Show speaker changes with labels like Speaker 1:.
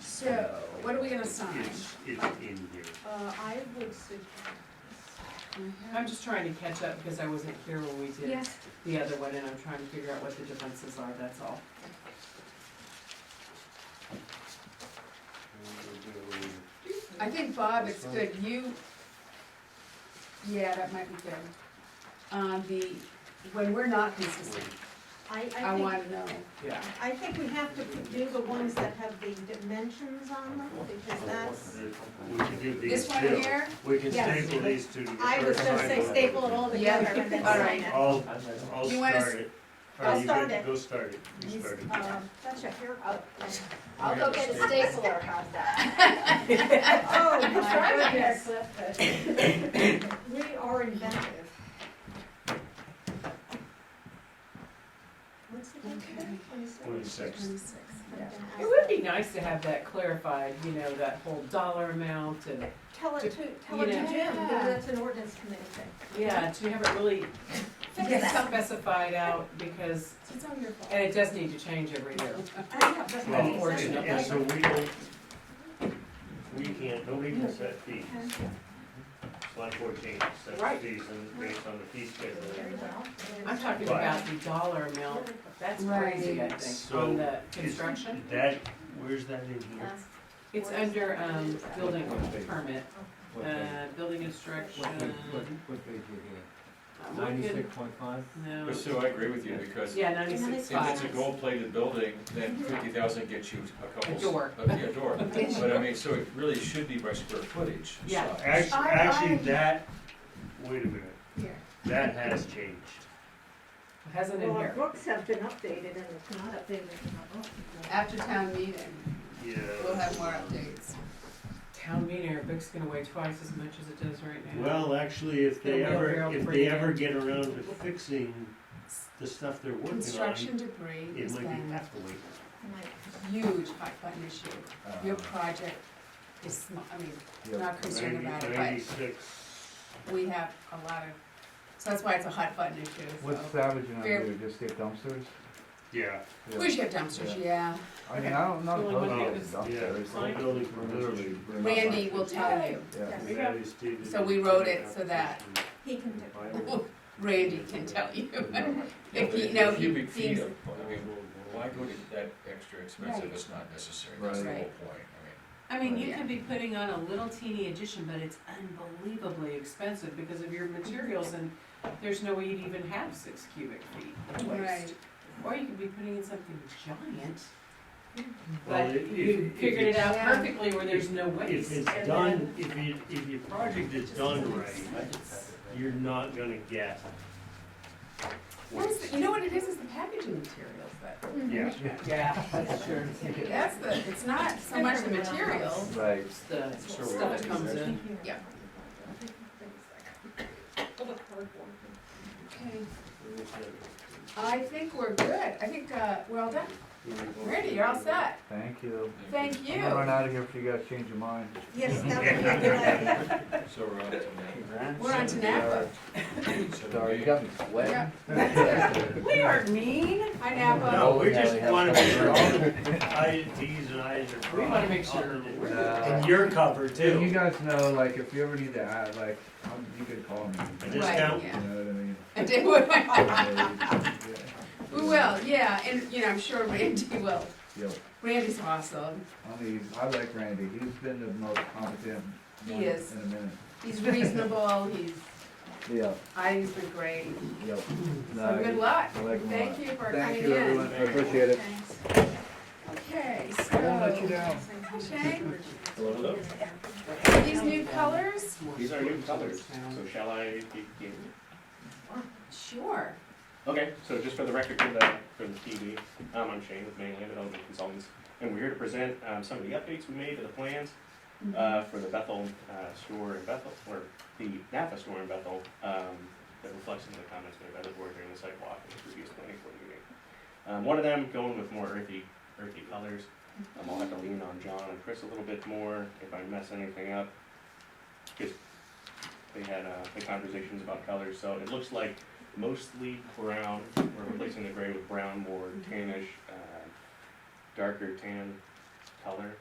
Speaker 1: So, what are we gonna sign?
Speaker 2: It's, it's in here.
Speaker 3: Uh, I would suggest.
Speaker 1: Mm-hmm.
Speaker 4: I'm just trying to catch up because I wasn't here when we did
Speaker 3: Yes.
Speaker 4: the other one and I'm trying to figure out what the differences are, that's all.
Speaker 1: I think Bob, it's good, you, yeah, that might be good. Um, the, when we're not consistent, I
Speaker 3: I, I think,
Speaker 1: wanna know.
Speaker 4: Yeah.
Speaker 3: I think we have to do the ones that have the dimensions on them, because that's,
Speaker 2: We can do these
Speaker 1: This one
Speaker 2: two.
Speaker 1: here?
Speaker 2: We can
Speaker 1: Yes.
Speaker 2: staple these two to the
Speaker 3: I was
Speaker 2: first
Speaker 3: gonna say
Speaker 2: line.
Speaker 3: staple it all
Speaker 1: Yeah,
Speaker 3: together and then
Speaker 1: all
Speaker 3: sign
Speaker 1: right.
Speaker 3: it.
Speaker 2: I'll, I'll
Speaker 1: You wanna
Speaker 2: start it. Or
Speaker 3: I'll
Speaker 2: you
Speaker 3: start
Speaker 2: go-
Speaker 3: it.
Speaker 2: Go start it, you
Speaker 1: He's-
Speaker 2: start it.
Speaker 3: Um, That's your hair. Oh,
Speaker 5: I'll go get a stapler, how's that?
Speaker 3: Oh,
Speaker 5: Try
Speaker 3: my
Speaker 5: my
Speaker 3: goodness. We are inventive. What's the date today? Twenty-six?
Speaker 2: Twenty-six.
Speaker 1: Twenty-six,
Speaker 3: I'm
Speaker 1: yeah.
Speaker 3: gonna
Speaker 4: It
Speaker 3: ask
Speaker 4: would
Speaker 3: them.
Speaker 4: be nice to have that clarified, you know, that whole dollar amount and,
Speaker 3: Tell it to, tell it to
Speaker 4: You
Speaker 3: Jim,
Speaker 4: know.
Speaker 3: because that's an ordinance committee thing.
Speaker 4: yeah, to have it really specified out because,
Speaker 1: It's all your fault.
Speaker 4: and it does need to change every year.
Speaker 3: I know, but
Speaker 2: Well,
Speaker 3: it's-
Speaker 2: and- And so
Speaker 4: Unfortunately.
Speaker 2: we don't, we can't, nobody can set fees. Select board change, set
Speaker 4: Right.
Speaker 2: fees and based on the fee schedule.
Speaker 3: Very well.
Speaker 4: I'm talking about the dollar amount, that's crazy, I think,
Speaker 2: So,
Speaker 4: on the
Speaker 2: is
Speaker 4: construction.
Speaker 2: That, where's that in here?
Speaker 4: It's under, um, building permit, uh, building instruction. I'm looking-
Speaker 6: Ninety-six point five?
Speaker 4: No,
Speaker 7: But Sue, I agree with you, because if
Speaker 4: yeah, ninety-six
Speaker 7: it's a
Speaker 4: five.
Speaker 7: gold-plated building, then fifty thousand gets you a couple.
Speaker 4: A door.
Speaker 7: of- yeah, A door, but I mean, so it really should be by square footage. so-
Speaker 4: Yeah.
Speaker 2: Actually,
Speaker 1: I-
Speaker 2: actually,
Speaker 1: I-
Speaker 2: that, wait a minute,
Speaker 1: Here.
Speaker 2: that has changed.
Speaker 4: Hasn't in
Speaker 3: Well, our
Speaker 4: here.
Speaker 3: books have been updated and it's not updated in our book.
Speaker 1: After town meeting,
Speaker 2: Yeah.
Speaker 1: we'll have more updates.
Speaker 4: Town meeting, our book's gonna weigh twice as much as it does right now.
Speaker 2: Well, actually, if they
Speaker 4: Yeah, we're-
Speaker 2: ever,
Speaker 4: we're
Speaker 2: if they
Speaker 4: bringing
Speaker 2: ever
Speaker 4: it.
Speaker 2: get around to fixing the stuff they're working on,
Speaker 1: Construction debris
Speaker 2: it
Speaker 1: has
Speaker 2: might be
Speaker 1: been
Speaker 2: half the weight.
Speaker 1: a huge hot button issue. Your project is, sm- I mean, not concerned about it, but
Speaker 2: Ninety-six.
Speaker 1: we have a lot of, so that's why it's a hot button issue,
Speaker 6: What's
Speaker 1: so.
Speaker 6: Savage and I
Speaker 1: Fair-
Speaker 6: do, just get dumpsters?
Speaker 2: Yeah,
Speaker 1: We should have dumpsters, yeah.
Speaker 6: I mean, I don't, not
Speaker 4: Well,
Speaker 6: opposed
Speaker 2: I
Speaker 6: to
Speaker 2: think
Speaker 4: it's-
Speaker 2: yeah,
Speaker 6: dumpsters.
Speaker 2: it's all building permits.
Speaker 1: Randy will tell you.
Speaker 6: Yeah.
Speaker 4: We
Speaker 2: That is stated
Speaker 1: So we
Speaker 2: in
Speaker 1: wrote
Speaker 2: the
Speaker 1: it so that-
Speaker 3: He can do
Speaker 2: application.
Speaker 1: Randy can tell you.
Speaker 7: Yeah,
Speaker 1: If
Speaker 7: but
Speaker 1: he,
Speaker 7: a
Speaker 1: no, he
Speaker 7: Cubic feet
Speaker 1: seems,
Speaker 7: of, I mean, why go to that extra expense if it's not necessary, that's the
Speaker 1: Right.
Speaker 7: whole
Speaker 1: Right.
Speaker 7: point, I mean.
Speaker 4: I mean, you
Speaker 1: Yeah.
Speaker 4: could be putting on a little teeny addition, but it's unbelievably expensive because of your materials and there's no way you'd even have six cubic feet of
Speaker 1: right,
Speaker 4: waste. Or you could be putting in something giant,
Speaker 2: Well,
Speaker 4: but
Speaker 2: it-
Speaker 4: you
Speaker 2: if- if
Speaker 4: figured it
Speaker 2: it's-
Speaker 4: out
Speaker 1: Yeah.
Speaker 4: perfectly where there's no
Speaker 2: If
Speaker 4: waste.
Speaker 2: it's done, if you, if your project is done right, you're not gonna get.
Speaker 1: What is the- you know what it is, is the packaging materials that,
Speaker 2: Yeah.
Speaker 4: Yeah, that's true.
Speaker 1: that's the, it's not so much the material.
Speaker 6: Right.
Speaker 4: It's the
Speaker 7: Sure,
Speaker 4: stuff
Speaker 7: we'll
Speaker 4: that
Speaker 7: do
Speaker 4: comes
Speaker 7: that.
Speaker 4: in.
Speaker 1: Yeah. Okay, I think we're good, I think, uh, we're all done, Randy, you're all set,
Speaker 6: Thank you.
Speaker 1: thank
Speaker 6: I'm gonna run
Speaker 1: you.
Speaker 6: out of here if you guys change your mind.
Speaker 3: Yes, that would be a good idea.
Speaker 7: So we're on to
Speaker 1: We're on to Napa.
Speaker 7: that. So
Speaker 6: Sorry,
Speaker 7: we-
Speaker 6: you got me sweating.
Speaker 1: Yeah. Hi
Speaker 4: We are mean.
Speaker 1: Napa,
Speaker 2: No, we just wanna make sure all the
Speaker 6: sure.
Speaker 2: I's, T's and I's are
Speaker 4: We wanna make sure.
Speaker 2: crossed. And you're covered
Speaker 6: And uh, you
Speaker 2: too.
Speaker 6: guys know, like, if you ever need to add, like, um, you could call me.
Speaker 2: A
Speaker 6: You know
Speaker 2: discount?
Speaker 1: yeah.
Speaker 6: what I mean?
Speaker 1: I did, we
Speaker 6: Yeah.
Speaker 1: will, yeah, and, you know, I'm sure Randy will,
Speaker 6: Yep.
Speaker 1: Randy's awesome,
Speaker 6: I mean, I like Randy. He's been the most competent
Speaker 1: He
Speaker 6: one
Speaker 1: is.
Speaker 6: in a minute.
Speaker 1: he's reasonable, he's,
Speaker 6: Yeah,
Speaker 1: I, he's been great,
Speaker 6: yep.
Speaker 1: so good luck,
Speaker 6: I like him a
Speaker 1: thank
Speaker 6: lot.
Speaker 1: you for coming in.
Speaker 6: Thank you, everyone. I appreciate it.
Speaker 1: Okay,
Speaker 6: I won't let you
Speaker 1: so,
Speaker 6: down.
Speaker 1: Shay, these new colors?
Speaker 8: These are new colors, so shall I begin?
Speaker 1: Sure.
Speaker 8: Okay, so just for the record, for the, for the TV, um, I'm Shane with Mainland Development Consultants, and we're here to present, um, some of the updates we made to the plans, uh, for the Bethel, uh, store in Bethel, or the Napa store in Bethel, um, that reflects some of the comments made by the board during the site walk and the previous planning board meeting. Um, one of them going with more earthy, earthy colors, um, I'll have to lean on John and Chris a little bit more if I mess anything up. Just, they had, uh, the conversations about colors, so it looks like mostly brown. We're replacing the gray with brown, more tannish, uh, darker tan color.